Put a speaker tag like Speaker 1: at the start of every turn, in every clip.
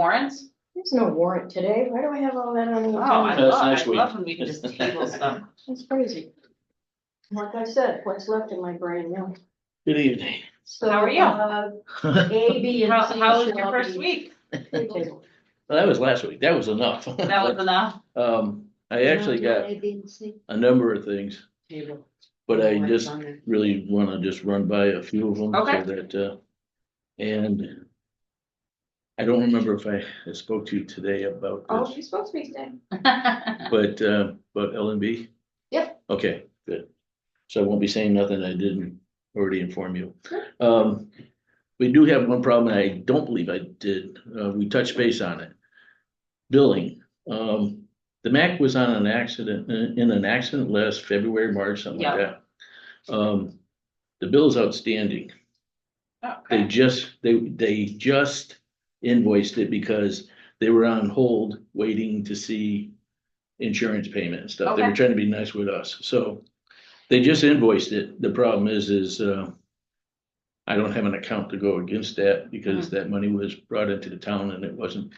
Speaker 1: warrants?
Speaker 2: There's no warrant today. Why do I have all that on the
Speaker 1: Oh, I
Speaker 2: agenda?
Speaker 3: That's
Speaker 1: love, I
Speaker 3: next week.
Speaker 1: love when we can just table stuff.
Speaker 2: That's crazy. Like I said, what's left in my brain now.
Speaker 3: Good evening.
Speaker 2: So,
Speaker 1: How are you?
Speaker 2: uh, A, B, and
Speaker 1: How,
Speaker 2: C
Speaker 1: how was
Speaker 2: shall
Speaker 1: your first
Speaker 2: be
Speaker 1: week?
Speaker 2: tabled.
Speaker 3: Well, That was last week. That was enough.
Speaker 1: That was enough.
Speaker 3: Um, I actually got a number of things,
Speaker 1: Table.
Speaker 3: but
Speaker 1: Oh,
Speaker 3: I just really want to just run by a few of them. so
Speaker 1: Okay.
Speaker 3: That, uh, and I don't remember if I spoke to you today about
Speaker 2: Oh,
Speaker 3: this,
Speaker 2: she's supposed to be staying.
Speaker 1: Oh,
Speaker 3: but, uh, about L and B?
Speaker 2: Yep.
Speaker 3: Okay, good. So I won't be saying nothing I didn't already inform you. Um, we do have one problem, and I don't believe I did, uh, we touched base on it. Billing, um, the Mac was on an accident, in in an accident last February, March, something like that. Um, the bill's outstanding. They
Speaker 1: Okay.
Speaker 3: just, they, they just invoiced it because they were on hold waiting to see insurance payment and stuff. They were
Speaker 1: Okay.
Speaker 3: trying to be nice with us, so they just invoiced it. The problem is, is, uh, I don't have an account to go against that because
Speaker 1: Mm-hmm.
Speaker 3: that money was brought into the town and it wasn't,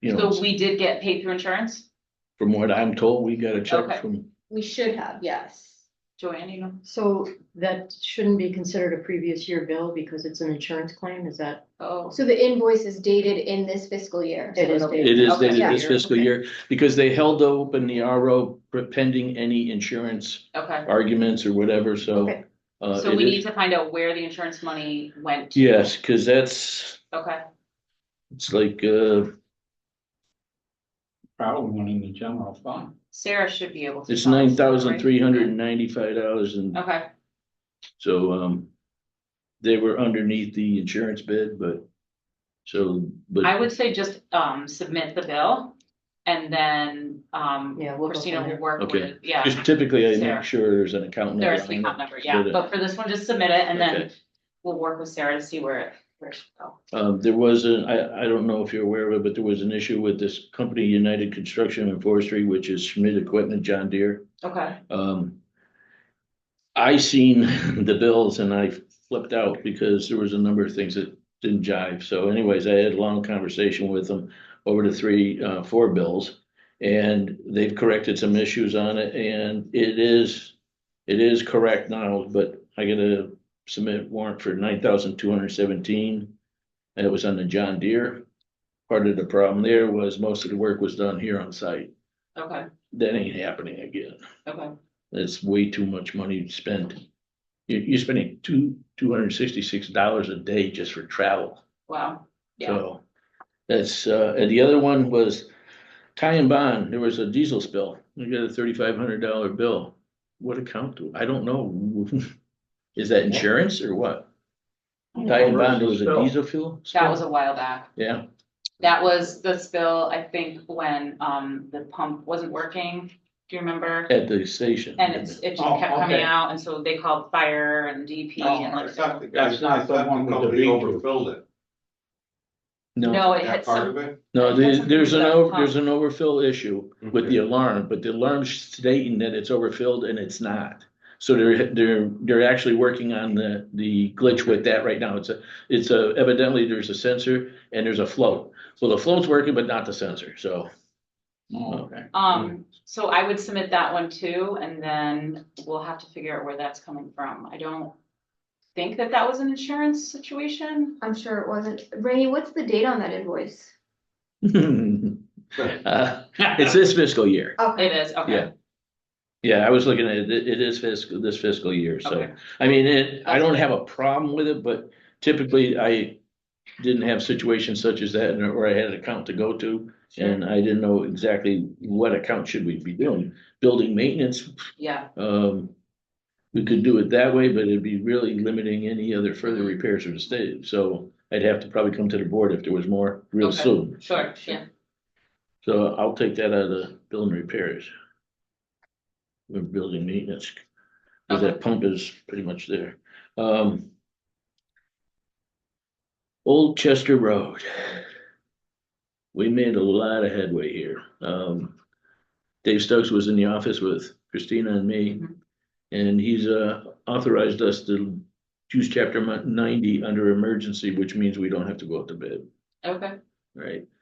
Speaker 3: you know,
Speaker 1: So we did get paid through insurance?
Speaker 3: from what I'm told, we got a
Speaker 1: Okay.
Speaker 3: check from,
Speaker 4: We should have, yes.
Speaker 1: Joanne, you know?
Speaker 2: So that shouldn't be considered a previous year bill because it's an insurance claim, is that?
Speaker 1: Oh,
Speaker 4: So the invoice is dated in this fiscal year. so
Speaker 2: It is
Speaker 4: it'll be-
Speaker 3: it is
Speaker 1: Okay.
Speaker 3: dated this
Speaker 4: Yeah.
Speaker 3: fiscal year because they held open the RO pending any insurance
Speaker 1: okay.
Speaker 3: arguments or whatever, so.
Speaker 2: Okay.
Speaker 3: uh,
Speaker 1: So
Speaker 3: it
Speaker 1: we
Speaker 3: is-
Speaker 1: need to find out where the insurance money went. to.
Speaker 3: Yes, because that's,
Speaker 1: Okay,
Speaker 3: it's like, uh,
Speaker 5: Probably one in the general fund.
Speaker 1: Sarah should be able to.
Speaker 3: it's
Speaker 1: tell us,
Speaker 3: nine thousand
Speaker 1: right?
Speaker 3: three hundred and ninety-five dollars and
Speaker 1: Okay,
Speaker 3: so, um. They were underneath the insurance bid, but,
Speaker 1: I
Speaker 3: so, but,
Speaker 1: would say just, um, submit the bill and then, um,
Speaker 2: Yeah, we'll go
Speaker 1: Christina
Speaker 2: from
Speaker 1: will
Speaker 2: there.
Speaker 1: work
Speaker 3: Okay.
Speaker 1: with, yeah.
Speaker 3: just typically I
Speaker 1: Sarah.
Speaker 3: make sure there's an account.
Speaker 1: There
Speaker 3: number
Speaker 1: is an
Speaker 3: on
Speaker 1: account
Speaker 3: it.
Speaker 1: number, yeah,
Speaker 3: But, uh,
Speaker 1: but for this one, just submit it and then
Speaker 3: okay.
Speaker 1: we'll work with Sarah to see where, it- where it should go.
Speaker 3: Um, there was a, I, I don't know if you're aware of it, but there was an issue with this company, United Construction and Forestry, which is Schmidt Equipment, John Deere.
Speaker 1: Okay,
Speaker 3: Um. I seen the bills and I flipped out because there was a number of things that didn't jive. So anyways, I had a long conversation with them over the three, uh, four bills. And they've corrected some issues on it and it is, it is correct now, but I gotta submit warrant for nine thousand two hundred seventeen. And it was on the John Deere. Part of the problem there was most of the work was done here on site.
Speaker 1: okay,
Speaker 3: That ain't happening again.
Speaker 1: okay.
Speaker 3: That's way too much money to spend. You, you're spending two, two hundred and sixty-six dollars a day just for travel,
Speaker 1: Wow, yeah,
Speaker 3: so. That's, uh, and the other one was tie and bond, there was a diesel spill, we got a thirty-five hundred dollar bill. What account, do I don't know. Is that insurance or what? Tie and bond, there was a diesel fuel?
Speaker 1: that
Speaker 3: spill?
Speaker 1: was a while back.
Speaker 3: Yeah,
Speaker 1: That was the spill, I think, when, um, the pump wasn't working, do you remember?
Speaker 3: at the station.
Speaker 1: And it's, it just
Speaker 5: Oh,
Speaker 1: kept coming
Speaker 5: okay.
Speaker 1: out, and so they called fire and DP
Speaker 6: Oh,
Speaker 1: and
Speaker 5: No, I
Speaker 1: like.
Speaker 5: thought the- That's not the one with the
Speaker 6: company
Speaker 5: big.
Speaker 6: Overfilled it,
Speaker 3: No,
Speaker 1: No, it
Speaker 6: that
Speaker 1: hit
Speaker 6: part of
Speaker 1: some,
Speaker 6: it?
Speaker 3: no,
Speaker 1: That's
Speaker 3: there's,
Speaker 1: something
Speaker 3: there's an,
Speaker 1: about
Speaker 3: over-
Speaker 1: pump.
Speaker 3: there's an overfill issue. with the alarm, but the alarm's stating that it's overfilled and it's not. So they're, they're, they're actually working on the, the glitch with that right now. It's a, it's a, evidently there's a sensor and there's a float. So the float's working, but not the sensor, so.
Speaker 5: Oh, okay.
Speaker 3: Mm.
Speaker 1: um, so I would submit that one too, and then we'll have to figure out where that's coming from. I don't think that that was an insurance situation.
Speaker 4: I'm sure it wasn't. Rainey, what's the date on that invoice?
Speaker 3: Uh, It's this fiscal year.
Speaker 1: It
Speaker 4: Okay,
Speaker 1: is,
Speaker 3: Yeah.
Speaker 1: okay,
Speaker 3: Yeah, I was looking at it, it it is fiscal, this fiscal year, so.
Speaker 1: okay,
Speaker 3: I mean, it, I don't have a problem with it, but typically I didn't have situations such as that and- or I had an account to go to.
Speaker 1: sure,
Speaker 3: And I didn't know exactly what account should we be doing, building maintenance,
Speaker 1: yeah,
Speaker 3: um. We could do it that way, but it'd be really limiting any other further repairs for the state, so I'd have to probably come to the board if there was more real
Speaker 1: Okay.
Speaker 3: soon.
Speaker 1: sure, yeah.
Speaker 3: So I'll take that out of the building repairs. We're building maintenance, because that pump is pretty much there, um. Old Chester Road. We made a lot of headway here, um. Dave Stokes was in the office with Christina and me.
Speaker 1: Mhm.
Speaker 3: And he's uh authorized us to use chapter ninety under emergency, which means we don't have to go out to bid.
Speaker 1: Okay,
Speaker 3: Right,